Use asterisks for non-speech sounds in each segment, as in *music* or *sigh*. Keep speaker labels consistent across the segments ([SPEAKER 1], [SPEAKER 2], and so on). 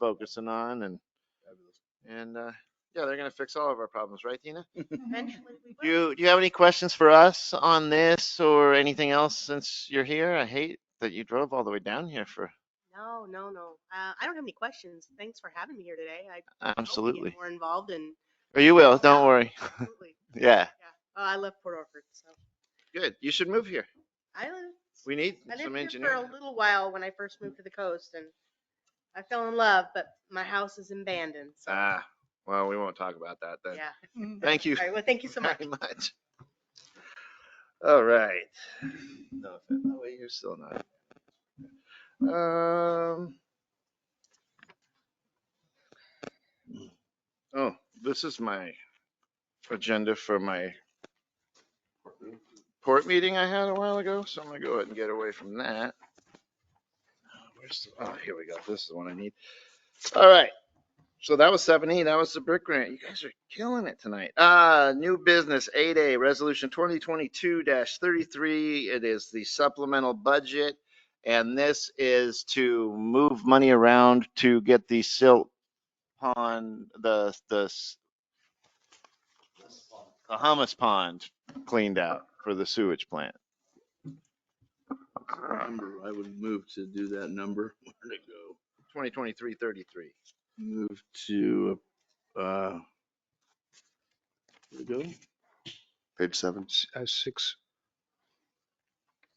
[SPEAKER 1] focusing on and, and, uh, yeah, they're gonna fix all of our problems, right, Tina?
[SPEAKER 2] Eventually we
[SPEAKER 1] Do
[SPEAKER 2] will.
[SPEAKER 1] you, do you have any questions for us on this or anything else since you're here? I hate that you drove all the way down here for,
[SPEAKER 2] No, no, no. Uh, I don't have any questions. Thanks for having me here today. I hope Oh, we get
[SPEAKER 1] absolutely.
[SPEAKER 2] more involved and
[SPEAKER 1] Or you will, don't worry. *laughs*
[SPEAKER 2] absolutely.
[SPEAKER 1] Yeah,
[SPEAKER 2] Yeah. Oh, I love Port Orford, so
[SPEAKER 1] good. You should move here.
[SPEAKER 2] I lived,
[SPEAKER 1] We need
[SPEAKER 2] I
[SPEAKER 1] some
[SPEAKER 2] lived here for
[SPEAKER 1] engineering.
[SPEAKER 2] a little while when I first moved to the coast and I fell in love, but my house is abandoned, so
[SPEAKER 1] Ah, well, we won't talk about that then.
[SPEAKER 2] yeah.
[SPEAKER 1] Thank you.
[SPEAKER 2] All right, well, thank
[SPEAKER 1] *laughs*
[SPEAKER 2] you so much.
[SPEAKER 1] very much. All right. No, offense. Oh, wait, you're still not. Um. Oh, this is my agenda for my port meeting I had a while ago, so I'm gonna go ahead and get away from that. Where's, the- oh, here we go. This is the one I need. All right. So that was seven E. That was the brick grant. You guys are killing it tonight. Uh, new business eight A, resolution twenty twenty-two thirty-three. It is the supplemental budget. And this is to move money around to get the silt pond, the, the s- the hummus pond cleaned out for the sewage plant.
[SPEAKER 3] Number, I would move to do that number. *laughs* Where'd it go?
[SPEAKER 1] Twenty twenty-three thirty-three.
[SPEAKER 3] Move to, uh, where'd it go?
[SPEAKER 4] Page seven.
[SPEAKER 5] S- uh, six,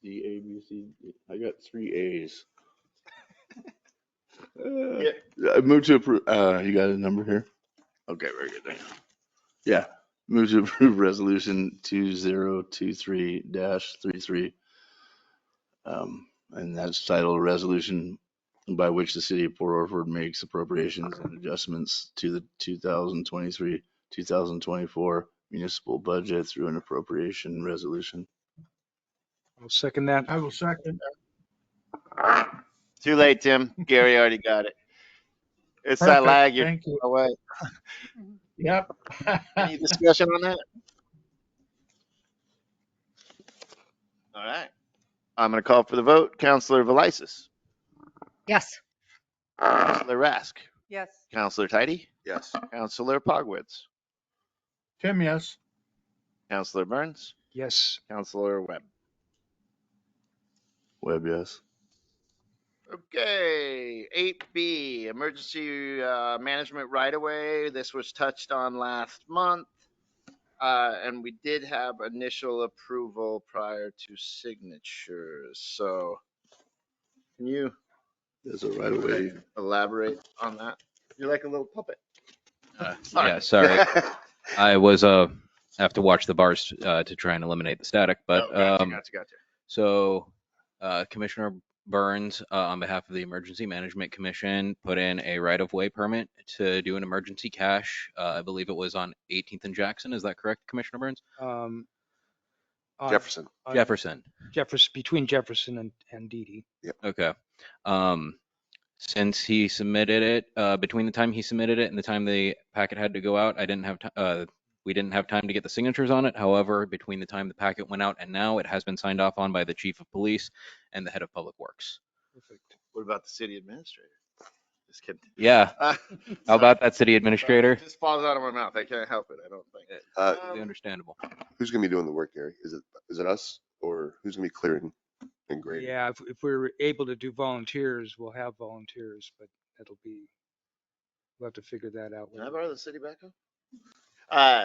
[SPEAKER 3] D, A, B, C, D. I got three A's. Uh,
[SPEAKER 1] Yeah.
[SPEAKER 3] I move to approve, uh, you got a number here? Okay, very good. thank you. Yeah, move to approve *laughs* resolution two zero two three dash three three. Um, and that's titled resolution by which the city of Port Orford makes appropriations and adjustments to the two thousand twenty-three, two thousand twenty-four municipal budget through an appropriation resolution.
[SPEAKER 5] I'll second that.
[SPEAKER 6] I will second.
[SPEAKER 1] Too late, Tim. Gary already got it. It's that
[SPEAKER 6] Perfect,
[SPEAKER 1] lag you're
[SPEAKER 6] Thank you.
[SPEAKER 1] away.
[SPEAKER 6] Yep. *laughs*
[SPEAKER 1] Any discussion on that? All right. I'm going to call for the vote. Counselor Velisis.
[SPEAKER 7] Yes.
[SPEAKER 1] Counselor Rask.
[SPEAKER 7] Yes.
[SPEAKER 1] Counselor Tidy.
[SPEAKER 4] Yes.
[SPEAKER 1] Counselor Pogwitz.
[SPEAKER 6] Tim, yes.
[SPEAKER 1] Counselor Burns.
[SPEAKER 5] Yes,
[SPEAKER 1] Counselor Webb.
[SPEAKER 3] Webb, yes.
[SPEAKER 1] Okay, eight B, emergency uh, management right away. This was touched on last month. Uh, And we did have initial approval prior to signatures, so can you
[SPEAKER 3] There's a right of way.
[SPEAKER 1] elaborate on that? You're like a little puppet.
[SPEAKER 8] Uh,
[SPEAKER 1] *laughs* Sorry.
[SPEAKER 8] Yeah, sorry. I was, uh, have to watch the bars, uh, to try and eliminate the static,
[SPEAKER 1] Oh,
[SPEAKER 8] but,
[SPEAKER 1] gotcha,
[SPEAKER 8] um,
[SPEAKER 1] gotcha, gotcha.
[SPEAKER 8] so, uh, Commissioner Burns, uh, on behalf of the Emergency Management Commission, put in a right-of-way permit to do an emergency cache. Uh, I believe it was on 18th and Jackson. Is that correct, Commissioner Burns?
[SPEAKER 5] um, on
[SPEAKER 4] Jefferson.
[SPEAKER 5] on
[SPEAKER 8] Jefferson.
[SPEAKER 5] Jefferson, between Jefferson and, and Didi.
[SPEAKER 8] Okay. Um, since he submitted it, uh, between the time he submitted it and the time the packet had to go out, I didn't have, ti- uh, we didn't have time to get the signatures on it. However, between the time the packet went out and now, it has been signed off on by the chief of police and the head of public works.
[SPEAKER 5] Perfect.
[SPEAKER 1] What about the city administrator? Just kidding.
[SPEAKER 8] Yeah,
[SPEAKER 1] How
[SPEAKER 8] how about that, city administrator?
[SPEAKER 1] Just um, falls out of my mouth. I can't help it. I don't think.
[SPEAKER 4] Uh,
[SPEAKER 8] Totally Understandable.
[SPEAKER 4] who's gonna be doing the work, Gary? Is it, is it us or who's gonna be clearing and grading?
[SPEAKER 5] Yeah, if, if we're able to do volunteers, we'll have volunteers, but that'll be, we'll have to figure that out.
[SPEAKER 1] Can I
[SPEAKER 5] later.
[SPEAKER 1] borrow the city backhoe? Uh,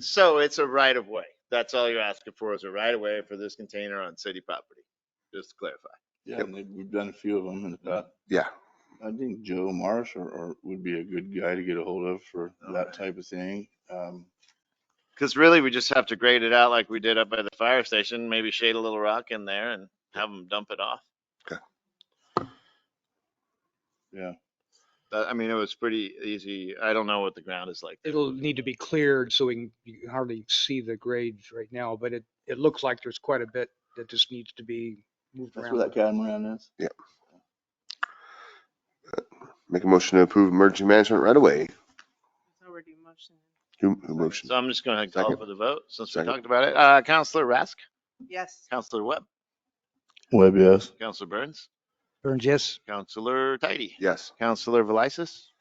[SPEAKER 1] so it's a right of way. That's all you're asking for is a right of way for this container on city property. Just to clarify.
[SPEAKER 3] Yeah, and they- we've done a few of them in the past.
[SPEAKER 4] Yeah.
[SPEAKER 3] I think Joe Marsh or, or would be a good guy to get a hold of for that type of thing. Um,
[SPEAKER 1] Cause really we just have to grade it out like we did up by the fire station, maybe shade a little rock in there and have them dump it off.
[SPEAKER 4] Okay.
[SPEAKER 3] Yeah.
[SPEAKER 1] But, I mean, it was pretty easy. I don't know what the ground is like. there.
[SPEAKER 5] It'll need to be cleared so we can you can hardly see the grades right now, but it, it looks like there's quite a bit that just needs to be moved
[SPEAKER 3] That's
[SPEAKER 5] around.
[SPEAKER 3] where that catamaran is.
[SPEAKER 4] Make a motion to approve emergency management right away.
[SPEAKER 2] It's already motion.
[SPEAKER 4] Who, who motioned?
[SPEAKER 1] So I'm just gonna call
[SPEAKER 4] Second.
[SPEAKER 1] for the vote since we
[SPEAKER 4] Second.
[SPEAKER 1] talked about it. Uh, Counselor Rask,
[SPEAKER 2] Yes.
[SPEAKER 1] Counselor Webb,
[SPEAKER 3] Webb, yes.
[SPEAKER 1] Counselor Burns,
[SPEAKER 5] Burns, yes?
[SPEAKER 1] Counselor Tidy.
[SPEAKER 4] Yes.
[SPEAKER 1] Counselor Velisis.